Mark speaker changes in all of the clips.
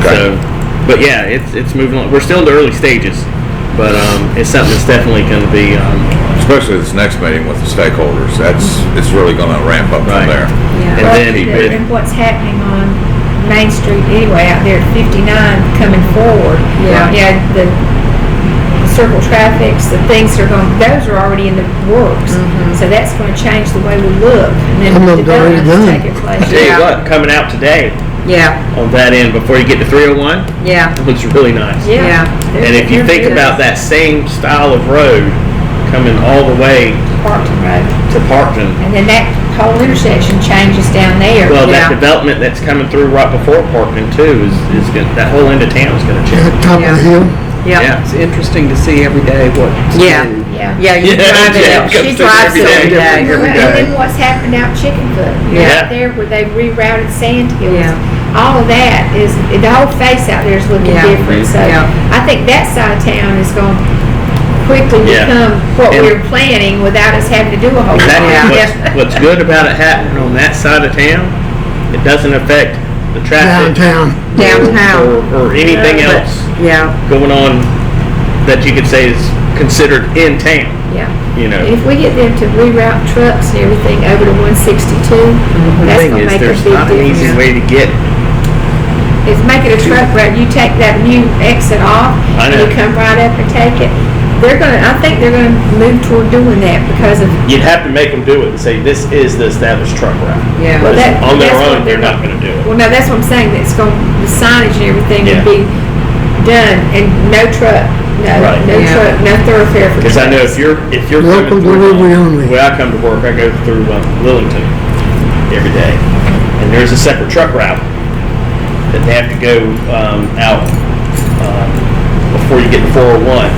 Speaker 1: Okay.
Speaker 2: So, but yeah, it's it's moving on. We're still in the early stages, but um, it's something that's definitely going to be um,
Speaker 1: Especially this next meeting with the stakeholders, that's, it's really gonna ramp up
Speaker 2: Right.
Speaker 1: from there.
Speaker 2: And
Speaker 3: Well,
Speaker 2: then-
Speaker 3: the- And what's happening on Main Street anyway, out there at fifty-nine coming forward.
Speaker 4: Yeah.
Speaker 3: Yeah, the circle traffics, the things that are going, those are already in the works.
Speaker 4: Mm-hmm.
Speaker 3: So that's gonna change the way we look and
Speaker 5: And
Speaker 3: then
Speaker 5: they've already
Speaker 3: development's
Speaker 5: done.
Speaker 3: taking
Speaker 2: I tell
Speaker 3: place.
Speaker 2: you
Speaker 4: Yeah.
Speaker 2: what coming out today
Speaker 4: Yeah,
Speaker 2: on that end before you get to 301
Speaker 4: yeah,
Speaker 2: it looks really nice.
Speaker 4: Yeah.
Speaker 2: And if you think about that same style of road coming all the way
Speaker 3: Parkton Road,
Speaker 2: to Parkton,
Speaker 3: and then that whole intersection changes down there.
Speaker 2: well,
Speaker 4: Yeah.
Speaker 2: that development that's coming through right before Parkton too is is gonna, that whole end of town is going to
Speaker 5: at
Speaker 2: change.
Speaker 5: the top of the hill.
Speaker 4: yeah.
Speaker 6: It's interesting to see every day what.
Speaker 4: Yeah.
Speaker 3: Yeah.
Speaker 4: Yeah, you
Speaker 2: Yeah, yeah,
Speaker 4: drive it,
Speaker 2: comes
Speaker 4: she
Speaker 2: through
Speaker 4: drives it every
Speaker 2: every day.
Speaker 4: day.
Speaker 3: Right, And then what's happened out Chickenfoot, you know,
Speaker 2: Yeah.
Speaker 3: out there where they rerouted Sand Hills.
Speaker 4: Yeah.
Speaker 3: All of that is, the whole face out there is looking
Speaker 4: Yeah.
Speaker 3: different, so
Speaker 4: Yeah.
Speaker 3: I think that side of town is going to quickly
Speaker 2: Yeah.
Speaker 3: become what
Speaker 2: And-
Speaker 3: we were planning without us having to do a whole
Speaker 2: That
Speaker 3: lot.
Speaker 4: Yeah.
Speaker 2: is what's, what's good about it happening on that side of town. It doesn't affect the traffic
Speaker 5: downtown.
Speaker 4: Downtown.
Speaker 2: or, or anything
Speaker 4: But-
Speaker 2: else
Speaker 4: Yeah,
Speaker 2: going on that you could say is considered in town.
Speaker 3: Yeah.
Speaker 2: You know,
Speaker 3: And if we get them to reroute trucks and everything over to one sixty-two,
Speaker 4: Mm-hmm.
Speaker 2: the
Speaker 3: that's
Speaker 2: thing
Speaker 3: gonna
Speaker 2: is,
Speaker 3: make a
Speaker 2: there's
Speaker 3: big
Speaker 2: not an easy
Speaker 3: difference.
Speaker 2: way to get.
Speaker 3: It's making a truck route, you take that new exit off,
Speaker 2: I
Speaker 3: and
Speaker 2: know.
Speaker 3: you come right up and take it. They're gonna, I think they're gonna move toward doing that because of
Speaker 2: You'd have to make them do it and say, this is the established truck route.
Speaker 4: yeah.
Speaker 3: Well, that-
Speaker 2: on their
Speaker 3: that's what
Speaker 2: own, they're
Speaker 3: they're-
Speaker 2: not going to do it.
Speaker 3: Well, no, that's what I'm saying, that it's going, the signage and everything
Speaker 2: Yeah.
Speaker 3: would be done, and no truck, no,
Speaker 2: Right.
Speaker 3: no
Speaker 4: Yeah.
Speaker 3: truck, no thoroughfare for
Speaker 2: Because I know if
Speaker 3: trucks.
Speaker 2: you're, if you're. coming
Speaker 5: Local
Speaker 2: through-
Speaker 5: delivery only.
Speaker 2: When I come to work, I go through um, Lillington every day. And there's a separate truck route that they have to go um, out um, before you get to 401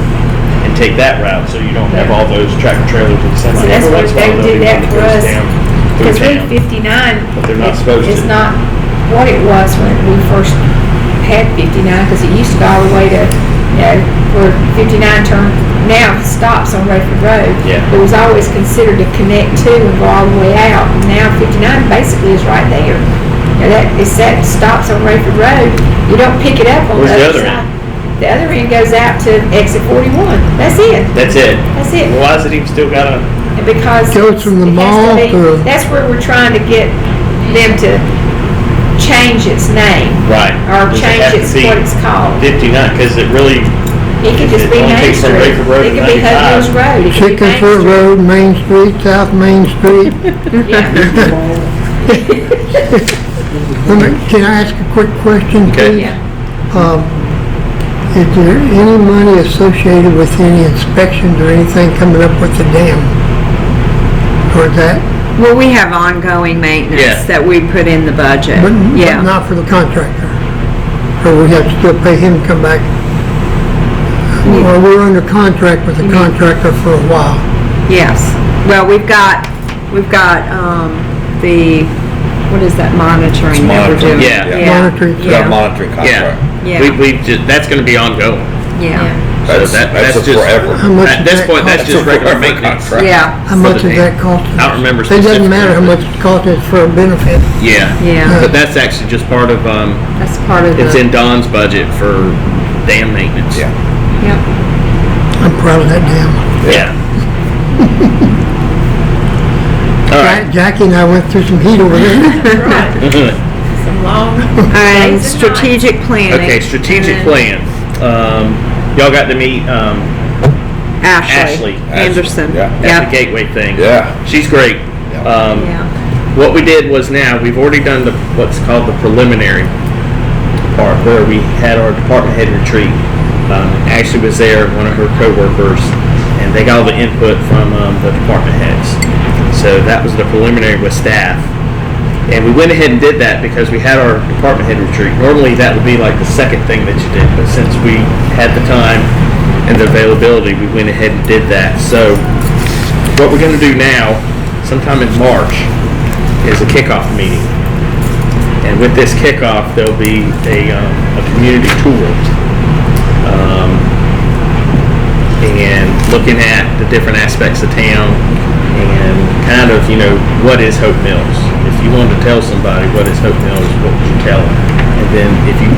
Speaker 2: and take that route, so you don't have all those tractor trailers and semis.
Speaker 3: So that's
Speaker 2: Every
Speaker 3: what
Speaker 2: once in a
Speaker 3: they
Speaker 2: while,
Speaker 3: did
Speaker 2: there'll
Speaker 3: that
Speaker 2: be one
Speaker 3: for
Speaker 2: goes
Speaker 3: us.
Speaker 2: down through
Speaker 3: Because Route
Speaker 2: town.
Speaker 3: fifty-nine.
Speaker 2: But they're not supposed
Speaker 3: It's
Speaker 2: to.
Speaker 3: not what it was when we first had fifty-nine, because it used to go all the way to, you know, where fifty-nine turn, now stops on Redford Road.
Speaker 2: Yeah.
Speaker 3: It was always considered to connect to and go all the way out, and now fifty-nine basically is right there. Now that, it set, stops on Redford Road, you don't pick it up on
Speaker 2: Where's
Speaker 3: the
Speaker 2: the
Speaker 3: other
Speaker 2: other
Speaker 3: side.
Speaker 2: end?
Speaker 3: The other end goes out to exit forty-one, that's it,
Speaker 2: That's it.
Speaker 3: that's it.
Speaker 2: Why is it even still got a?
Speaker 3: And because.
Speaker 5: Goes from the
Speaker 3: it has to
Speaker 5: mall
Speaker 3: be-
Speaker 5: to-
Speaker 3: That's where we're trying to get them to change its name
Speaker 2: Right.
Speaker 3: or
Speaker 2: Does it
Speaker 3: change
Speaker 2: have to
Speaker 3: its,
Speaker 2: be
Speaker 3: what it's called.
Speaker 2: 59, because it really,
Speaker 3: It could just
Speaker 2: it
Speaker 3: be
Speaker 2: only
Speaker 3: Main
Speaker 2: takes from
Speaker 3: Street.
Speaker 2: Bedford Road
Speaker 3: It
Speaker 2: to
Speaker 3: could be
Speaker 2: 95.
Speaker 3: Hudlin's Road. It could be Main
Speaker 5: Chickenfoot
Speaker 3: Street.
Speaker 5: Road, Main Street, South Main Street.
Speaker 3: Yeah.
Speaker 5: Let me- Can I ask a quick question,
Speaker 1: Okay.
Speaker 5: please?
Speaker 3: Yeah.
Speaker 5: Um, Is there any money associated with any inspections or anything coming up with the dam? Or that,
Speaker 4: Well, we have ongoing
Speaker 2: Yeah.
Speaker 4: maintenance that we put in the budget,
Speaker 5: but but
Speaker 4: yeah.
Speaker 5: not for the contractor? Or we have to still pay him to come back? Or we're under contract with the contractor for a while?
Speaker 4: Yes. Well, we've got, we've got, um, the, what is that monitoring that we're
Speaker 1: monitoring,
Speaker 4: doing?
Speaker 2: yeah.
Speaker 5: Monitoring.
Speaker 1: We've got
Speaker 4: Yeah,
Speaker 1: monitoring
Speaker 2: yeah.
Speaker 1: contract.
Speaker 4: Yeah.
Speaker 2: We, we, just- that's going to be ongoing.
Speaker 4: yeah,
Speaker 1: That's,
Speaker 2: that-
Speaker 1: that's
Speaker 2: that's
Speaker 1: a
Speaker 2: just-
Speaker 5: How
Speaker 1: forever.
Speaker 5: much
Speaker 2: At
Speaker 5: does
Speaker 2: this
Speaker 5: that
Speaker 2: point, that's
Speaker 5: cost?
Speaker 2: just
Speaker 1: That's a
Speaker 2: regular
Speaker 1: government
Speaker 2: maintenance.
Speaker 1: contract.
Speaker 4: yeah,
Speaker 5: How
Speaker 2: for
Speaker 5: much
Speaker 2: the
Speaker 5: does that cost?
Speaker 2: I don't remember
Speaker 5: It doesn't matter how much it costs, it's for a benefit.
Speaker 2: Yeah.
Speaker 4: yeah.
Speaker 2: But that's actually just part of, um,
Speaker 4: That's part of the.
Speaker 2: it's in Don's budget for dam maintenance.
Speaker 1: Yeah.
Speaker 4: Yep,
Speaker 5: I'm proud of that dam.
Speaker 2: Yeah. All right.
Speaker 5: Ja- Jackie and I went through some heat over there.
Speaker 3: Right. Some long.
Speaker 4: and
Speaker 3: days and
Speaker 4: strategic planning.
Speaker 2: Okay, strategic
Speaker 4: and
Speaker 2: plan. Um, y'all got to meet, um, Ashley.
Speaker 4: Ashley
Speaker 1: Ashley,
Speaker 4: Anderson,
Speaker 1: yeah.
Speaker 2: at the
Speaker 4: yeah,
Speaker 2: Gateway thing.
Speaker 1: Yeah.
Speaker 2: She's great. Um,
Speaker 4: yeah,
Speaker 2: What we did was now, we've already done the, what's called the preliminary part, where we had our department head retreat. Um, Ashley was there, one of her coworkers, and they got all the input from, um, the department heads. So that was the preliminary with staff. And we went ahead and did that because we had our department head retreat. Normally, that would be like the second thing that you did, but since we had the time and the availability, we went ahead and did that. So what we're gonna do now, sometime in March, is a kickoff meeting. And with this kickoff, there'll be a, um, a community tour. Um, and looking at the different aspects of town and kind of, you know, what is Hope Mills? If you wanted to tell somebody what is Hope Mills, what would you tell them? And then if you